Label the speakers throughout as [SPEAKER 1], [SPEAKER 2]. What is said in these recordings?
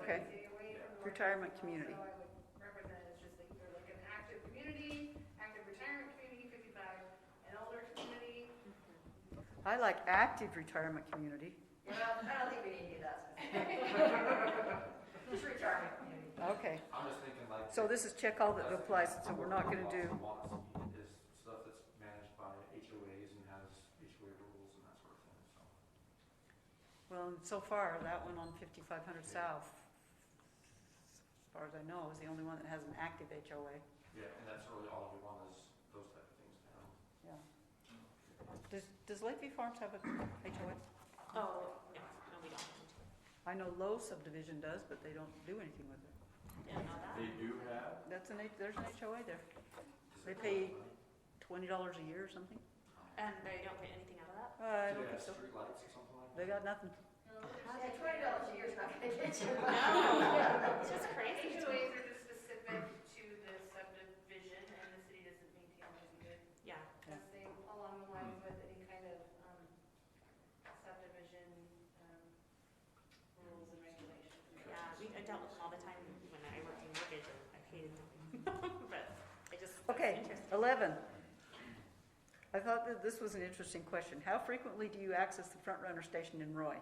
[SPEAKER 1] Okay.
[SPEAKER 2] city away from North
[SPEAKER 1] Retirement
[SPEAKER 2] Carolina,
[SPEAKER 1] community.
[SPEAKER 2] So I would represent it as just like, they're like an active community, active retirement community, fifty-five, an older community.
[SPEAKER 1] I like active retirement community.
[SPEAKER 2] Well, I don't think we need to do that. Just retirement community.
[SPEAKER 1] Okay,
[SPEAKER 3] I'm just thinking like.
[SPEAKER 1] so this is check all that applies, so we're not gonna do,
[SPEAKER 3] Lots of lots Is stuff that's managed by HOAs and has HOA rules and that sort of thing, so.
[SPEAKER 1] well, and so far, that one on fifty-five hundred south, as far as I know, is the only one that has an active HOA,
[SPEAKER 3] Yeah, and that's really all we want is those type of things now.
[SPEAKER 1] yeah. Does, does Lakeview Farms have a HOA?
[SPEAKER 4] Oh, no, no, we don't.
[SPEAKER 1] I know Low subdivision does, but they don't do anything with it.
[SPEAKER 4] Yeah, not that.
[SPEAKER 3] They do have.
[SPEAKER 1] That's an, H- there's an HOA there,
[SPEAKER 3] does
[SPEAKER 1] They
[SPEAKER 3] it-
[SPEAKER 1] pay- twenty dollars a year or something?
[SPEAKER 4] And they don't get anything out of that?
[SPEAKER 1] Uh, I
[SPEAKER 3] Do
[SPEAKER 1] don't think
[SPEAKER 3] they have
[SPEAKER 1] so.
[SPEAKER 3] streetlights or something like that?
[SPEAKER 1] They got nothing.
[SPEAKER 2] Yeah, twenty dollars a year is not gonna get you.
[SPEAKER 4] No, it's just crazy.
[SPEAKER 2] HOAs are just specific to the subdivision and the city doesn't maintain those either.
[SPEAKER 4] Yeah,
[SPEAKER 2] Because they, along the lines with any kind of um, subdivision um, rules and regulations.
[SPEAKER 4] yeah, we, I dealt with them all the time when I worked in mortgage and I hated them. But I just,
[SPEAKER 1] Okay,
[SPEAKER 4] it's interesting.
[SPEAKER 1] eleven. I thought that this was an interesting question. How frequently do you access the front runner station in Roy?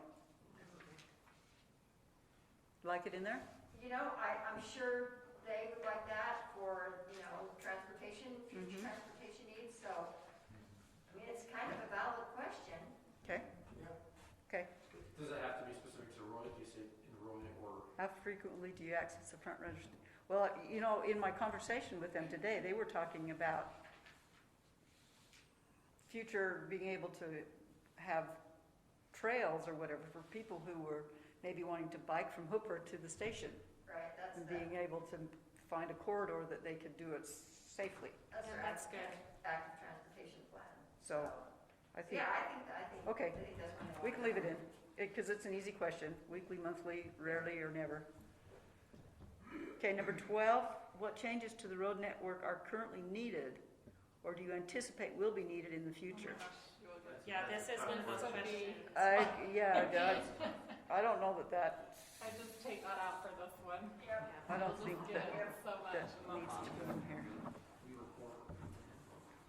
[SPEAKER 1] Like it in there?
[SPEAKER 5] You know, I, I'm sure they would like that for, you know, transportation,
[SPEAKER 1] Mhm.
[SPEAKER 5] future transportation needs, so, I mean, it's kind of a valid question.
[SPEAKER 1] Okay,
[SPEAKER 3] Does it have to be specific to Roy, do you say in Roy or?
[SPEAKER 1] how frequently do you access the front runner? st- Well, you know, in my conversation with them today, they were talking about future being able to have trails or whatever for people who were maybe wanting to bike from Hooper to the station.
[SPEAKER 5] Right, that's
[SPEAKER 1] and
[SPEAKER 5] the,
[SPEAKER 1] being able to find a corridor that they could do it safely.
[SPEAKER 5] that's
[SPEAKER 4] Yeah,
[SPEAKER 5] their
[SPEAKER 4] that's
[SPEAKER 5] active, active transportation plan.
[SPEAKER 1] So I think,
[SPEAKER 5] Yeah, I think, I think,
[SPEAKER 1] Okay.
[SPEAKER 5] I think that's one.
[SPEAKER 1] we can leave it in, because it's an easy question, weekly, monthly, rarely, or never. Okay, number twelve, what changes to the road network are currently needed, or do you anticipate will be needed in the future?
[SPEAKER 4] Yeah, this is one of those questions.
[SPEAKER 1] I, yeah, I don't- I don't know that that,
[SPEAKER 6] I just take that out for this one.
[SPEAKER 4] Yeah.
[SPEAKER 1] I don't
[SPEAKER 6] We'll
[SPEAKER 1] think
[SPEAKER 6] just
[SPEAKER 1] that,
[SPEAKER 6] get it so much
[SPEAKER 1] that
[SPEAKER 6] in the
[SPEAKER 1] needs
[SPEAKER 6] hall.
[SPEAKER 1] to be in here.
[SPEAKER 3] We report.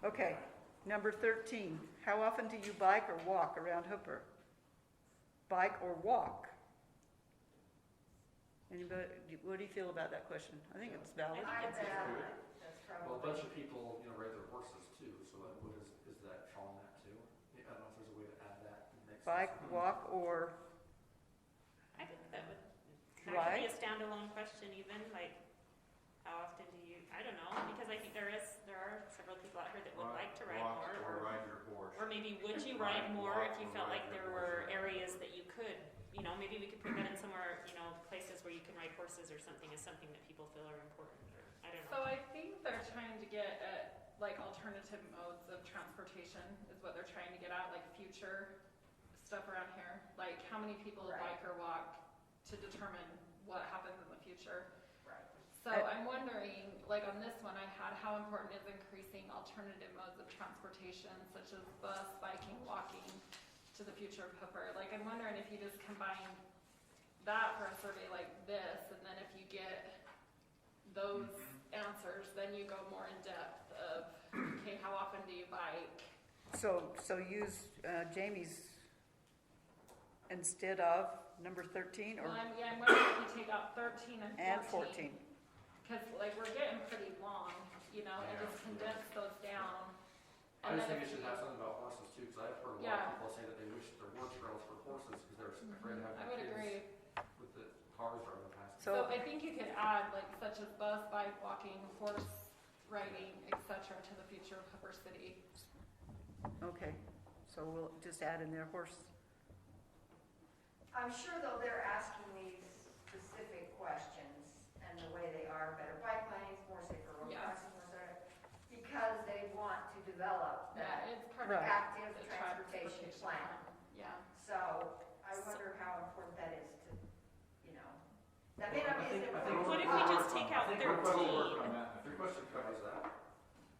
[SPEAKER 1] Okay, number thirteen, how often do you bike or walk around Hooper? Bike or walk? Anybody, what do you feel about that question? I think it's valid.
[SPEAKER 5] I
[SPEAKER 4] It's-
[SPEAKER 5] bet,
[SPEAKER 3] good.
[SPEAKER 5] that's
[SPEAKER 3] Well, a
[SPEAKER 5] probably,
[SPEAKER 3] bunch of people, you know, ride their horses too, so like, what is, is that falling that too? Yeah, I don't know if there's a way to add that next.
[SPEAKER 1] Bike, walk, or,
[SPEAKER 4] I think that would, that could be
[SPEAKER 1] Right.
[SPEAKER 4] a standalone question even, like, how often do you, I don't know, because I think there is, there are several people out here that would like to ride more.
[SPEAKER 7] Walk
[SPEAKER 4] or-
[SPEAKER 7] or ride your horse.
[SPEAKER 4] Or maybe would you
[SPEAKER 7] Right,
[SPEAKER 4] ride more if you
[SPEAKER 7] walk or
[SPEAKER 4] felt like
[SPEAKER 7] ride
[SPEAKER 4] there
[SPEAKER 7] your
[SPEAKER 4] were
[SPEAKER 7] horse.
[SPEAKER 4] areas that you could, you know, maybe we could put that in somewhere, you know, places where you can ride horses or something is something that people feel are important or, I don't
[SPEAKER 6] So
[SPEAKER 4] know.
[SPEAKER 6] I think they're trying to get at like alternative modes of transportation is what they're trying to get at, like future stuff around here. Like how many people
[SPEAKER 5] Right.
[SPEAKER 6] bike or walk to determine what happens in the future.
[SPEAKER 5] right.
[SPEAKER 6] So
[SPEAKER 1] Uh,
[SPEAKER 6] I'm wondering, like on this one I had, how important is increasing alternative modes of transportation such as bus, biking, walking to the future of Hooper? Like I'm wondering if you just combine that for a survey like this, and then if you get those
[SPEAKER 5] Mm-hmm.
[SPEAKER 6] answers, then you go more in depth of, okay, how often do you bike?
[SPEAKER 1] so, so use uh, Jamie's instead of number thirteen
[SPEAKER 6] Well,
[SPEAKER 1] or,
[SPEAKER 6] I'm, yeah, I'm wondering if you take out thirteen
[SPEAKER 1] and
[SPEAKER 6] and fourteen.
[SPEAKER 1] fourteen.
[SPEAKER 6] Cause like we're getting pretty long, you know, and
[SPEAKER 7] Yeah.
[SPEAKER 6] just condense those down.
[SPEAKER 3] I
[SPEAKER 6] And
[SPEAKER 3] just
[SPEAKER 6] then
[SPEAKER 3] think it
[SPEAKER 6] if
[SPEAKER 3] should
[SPEAKER 6] you-
[SPEAKER 3] have something about horses too, because I've heard a lot
[SPEAKER 6] Yeah.
[SPEAKER 3] of people say that they wish there were trails for horses because they're
[SPEAKER 4] Mm-hmm.
[SPEAKER 3] afraid of
[SPEAKER 6] I
[SPEAKER 3] having
[SPEAKER 6] would agree.
[SPEAKER 3] kids with the cars driving past.
[SPEAKER 1] So-
[SPEAKER 6] So I think you could add like such as bus, bike, walking, horse riding, et cetera, to the future of Hooper City.
[SPEAKER 1] Okay, so we'll just add in there horse.
[SPEAKER 5] I'm sure though they're asking these specific questions and the way they are, better bike lanes, more safer road
[SPEAKER 6] Yeah.
[SPEAKER 5] crossings, more safer, because they want to develop that
[SPEAKER 6] Yeah, it's part
[SPEAKER 1] Right.
[SPEAKER 6] of
[SPEAKER 5] active
[SPEAKER 6] the
[SPEAKER 5] transportation plan.
[SPEAKER 6] Yeah.
[SPEAKER 5] So I wonder how important that is to, you know, that may not
[SPEAKER 3] I
[SPEAKER 5] be
[SPEAKER 3] think- I
[SPEAKER 5] as
[SPEAKER 3] think
[SPEAKER 5] important.
[SPEAKER 4] What if we
[SPEAKER 3] we're-
[SPEAKER 4] just take
[SPEAKER 3] I
[SPEAKER 4] out
[SPEAKER 3] think we're probably
[SPEAKER 4] 13?
[SPEAKER 3] working on that. If your question covers that,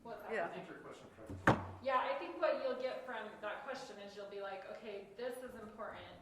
[SPEAKER 6] What's that?
[SPEAKER 1] Yeah.
[SPEAKER 3] I think your question covers that.
[SPEAKER 6] Yeah, I think what you'll get from that question is you'll be like, okay, this is important.